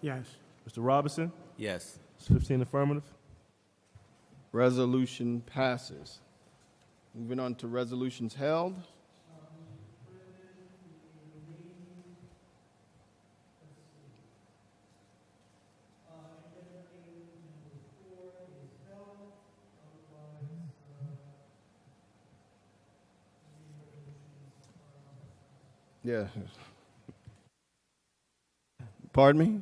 Yes. Mr. Robinson? Yes. It's 15 affirmative. Resolution passes. Moving on to resolutions held. Yeah. Pardon me?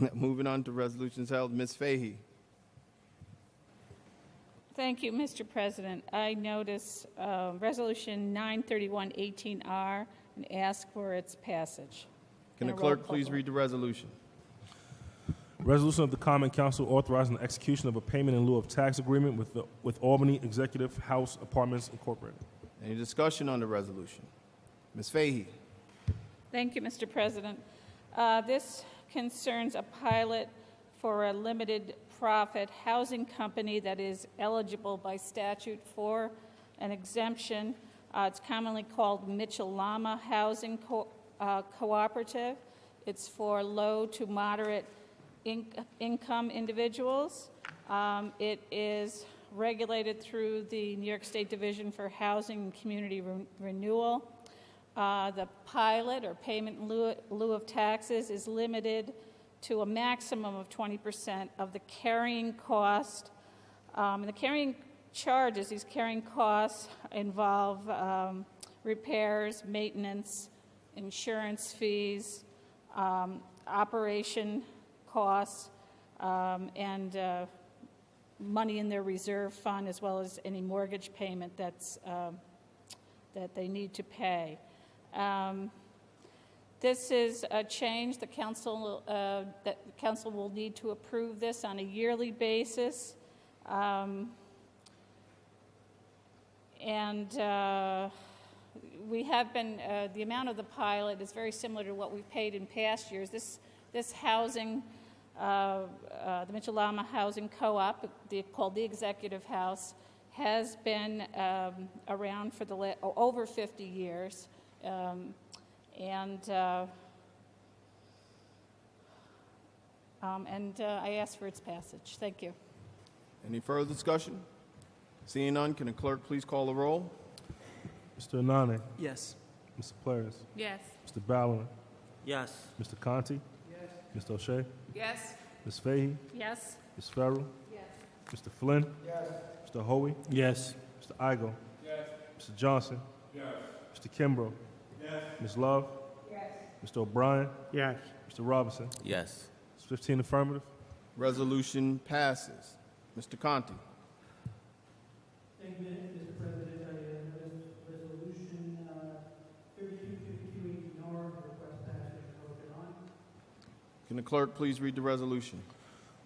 Moving on to resolutions held. Ms. Fahey. Thank you, Mr. President. I notice uh, Resolution 931-18R and ask for its passage. Can the And a roll clerk call please vote. read the resolution? Resolution of the Common Council authorizing the execution of a payment in lieu of tax agreement with, the, with Albany Executive House Apartments Incorporated. Any discussion on the resolution? Ms. Fahey, Thank you, Mr. President. Uh, This concerns a pilot for a limited-profit housing company that is eligible by statute for an exemption. Uh, It's commonly called Mitchell Lama Housing Co- uh, Cooperative. It's for low to moderate inc- income individuals. Um, It is regulated through the New York State Division for Housing and Community Re- Renewal. Uh, The pilot or payment in lieu- lieu of taxes is limited to a maximum of 20% of the carrying cost. Um, and The carrying charges, these carrying costs involve um, repairs, maintenance, insurance fees, um, operation costs, um, and uh, money in their reserve fund, as well as any mortgage payment that's um, that they need to pay. Um, This is a change, the council, uh, that the council will need to approve this on a yearly basis. Um, And uh, we have been, uh, the amount of the pilot is very similar to what we've paid in past years. This, this housing, uh, uh, the Mitchell Lama Housing Co-op, the- called the Executive House, has been um, around for the, la- o- over 50 years. Um, And, uh, um, and uh, I ask for its passage. Thank you. any further discussion? Seeing none, can the clerk please call the roll? Mr. Anane, Yes. Mr. Polaris, Yes. Mr. Ballard, Yes. Mr. Conti, yes. Mr. O'Shea, Yes. Ms. Fahey, Yes. Ms. Farrell, Mr. Flynn, Mr. Hoey, Yes. Mr. Igo, Mr. Johnson, Mr. Kimbrough, Ms. Love, Mr. O'Brien, Yes. Mr. Robinson. Yes. It's 15 affirmative. Resolution passes. Mr. Conti, Thank you, Mr. President. I uh, have res- resolution thirty-two fifty-two eighteen R, request passage of open on. can the clerk please read the resolution?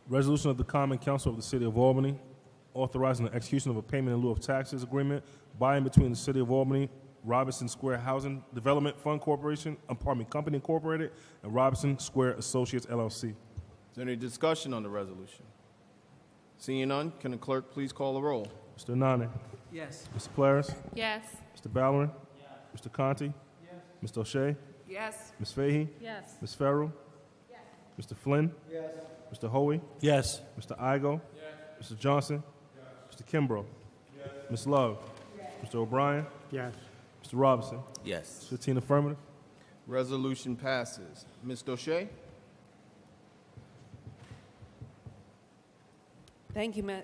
Resolution of the Common Council of the City of Albany authorizing the execution of a payment in lieu of taxes agreement by and between the City of Albany, Robinson Square Housing Development Fund Corporation, Apartment Company Incorporated, and Robinson Square Associates LLC. Is there any discussion on the resolution? Seeing none, can the clerk please call the roll? Mr. Nane, Yes. Mr. Polaris, Yes. Mr. Ballard, Mr. Conti, Mr. O'Shea, Yes. Ms. Fahey, Yes. Ms. Farrell, Mr. Flynn, Mr. Hoey, Yes. Mr. Igo, Mr. Johnson, Mr. Kimbrough, Ms. Love, Mr. O'Brien, Yes. Mr. Robinson. Yes. 15 affirmative. Resolution passes. Ms. Doche, Thank you, Ma-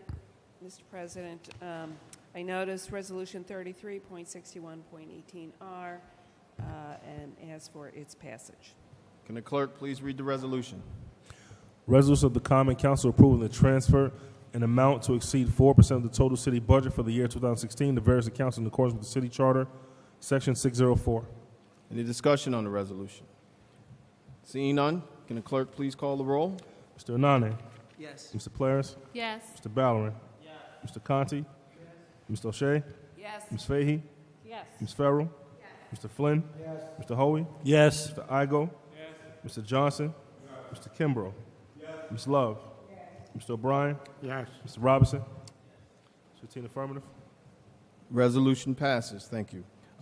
Mr. President. Um, I noticed Resolution 33.61.18R uh, and ask for its passage. can the clerk please read the resolution? Resolution of the Common Council approving the transfer an amount to exceed 4% of the total city budget for the year 2016 to various accounts in accordance with the city charter, section 604. Any discussion on the resolution? Seeing none, can the clerk please call the roll? Mr. Anane, Yes. Mr. Polaris, Yes. Mr. Ballerin, Mr. Conti, Mr. O'Shea, Yes. Ms. Fahey, Yes. Ms. Farrell, Mr. Flynn, Mr. Hoey, Yes. Mr. Igo, Mr. Johnson, Mr. Kimbrough, Ms. Love, Mr. O'Brien, Yes. Mr. Robinson. 15 affirmative. Resolution passes. Thank you.